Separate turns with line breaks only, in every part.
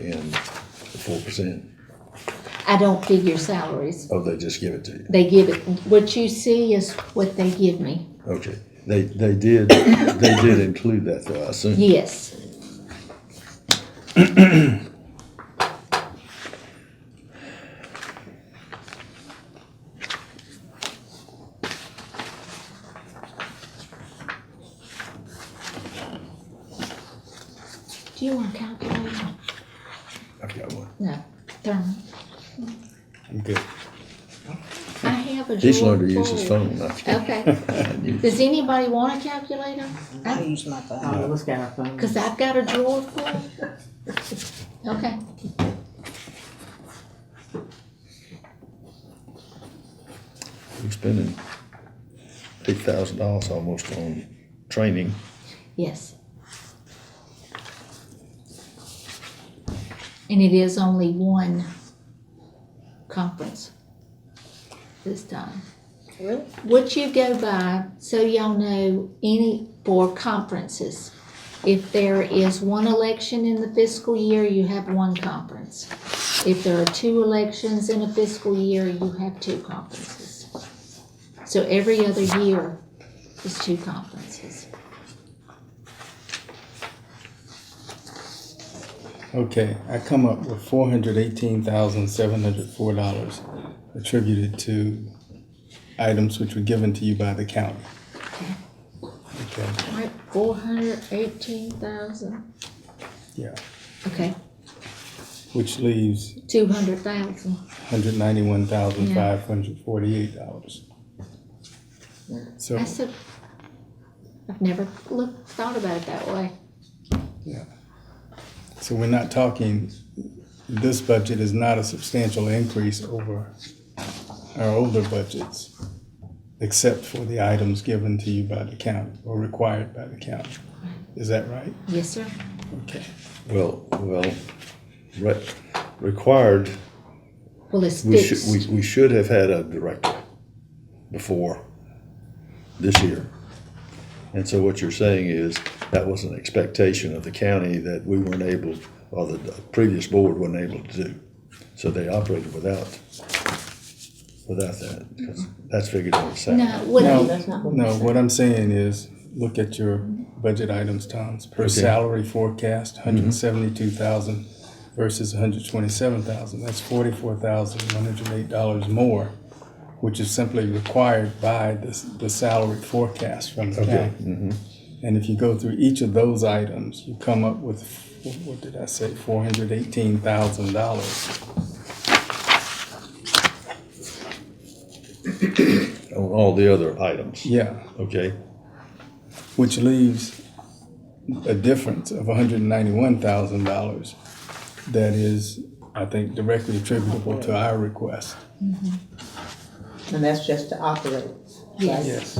in the four percent,
I don't figure salaries.
oh, they just give it to you?
They give it, what you see is what they give me.
Okay, they, they did, they did include that though, I assume.
Yes, do you want a calculator?
I've got one.
No, thermal.
I'm good.
I have a drawer.
He's learned to use his
full.
phone, not you.
Okay. Does anybody want a calculator?
I use my phone.
Oh, let's get our phone.
Cause I've got a drawer full. Okay.
We're spending eight thousand dollars almost on training.
Yes. And it is only one conference this time.
Really?
What you go by, so y'all know, any, for conferences, if there is one election in the fiscal year, you have one conference. If there are two elections in a fiscal year, you have two conferences. So every other year is two conferences.
Okay, I come up with four hundred eighteen thousand seven hundred four dollars attributed to items which were given to you by the county. Okay,
Right, four hundred eighteen thousand,
yeah,
okay,
which leaves
two hundred thousand,
hundred ninety-one thousand five hundred forty-eight dollars. So,
that's a, I've never looked, thought about it that way.
yeah. So we're not talking, this budget is not a substantial increase over our older budgets, except for the items given to you by the county or required by the county. Is that right?
Yes, sir,
Okay.
Well, well, re- required,
well, it's
we should,
fixed,
we, we should have had a director before this year. And so what you're saying is that was an expectation of the county that we weren't able, or the previous board wasn't able to do. So they operated without, without that, because that's figured in the salary.
no, what,
No,
I-
that's not what
no, what I'm saying is, look at your budget items, Tom's, per salary forecast, hundred and seventy-two thousand versus hundred twenty-seven thousand, that's forty-four thousand, one hundred and eight dollars more, which is simply required by the, s- the salary forecast from the county. And if you go through each of those items, you come up with, wh- what did I say, four hundred eighteen thousand dollars.
on all the other items,
Yeah,
okay?
which leaves a difference of $191,000 that is, I think, directly attributable to our request.
And that's just to operate.
yes,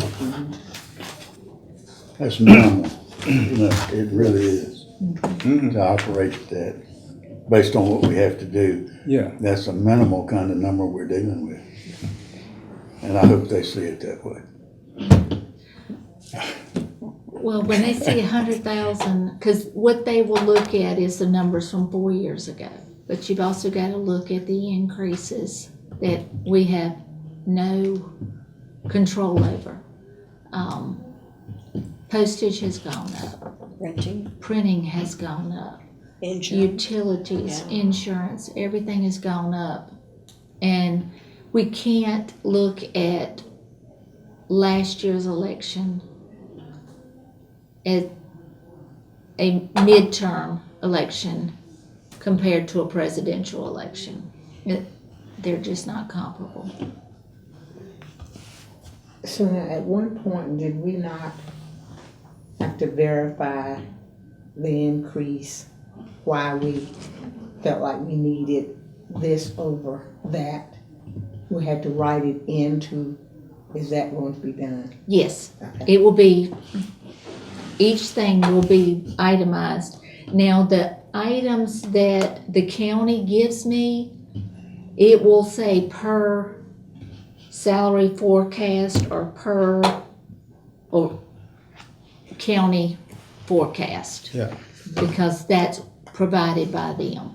That's minimal. No, It really is. To operate that, based on what we have to do,
Yeah,
that's a minimal kind of number we're dealing with. And I hope they see it that way.
well, when they see a hundred thousand, cause what they will look at is the numbers from four years ago. But you've also gotta look at the increases that we have no control over. Um, Postage has gone up.
Renting,
printing has gone up,
insurance.
utilities, insurance, everything has gone up. And we can't look at last year's election as a midterm election compared to a presidential election. It- They're just not comparable.
So now, at one point, did we not have to verify the increase, why we felt like we needed this over that? We had to write it into, is that going to be done?
Yes, it will be, each thing will be itemized. Now, the items that the county gives me, it will say per salary forecast or per, or county forecast,
yeah.
because that's provided by them.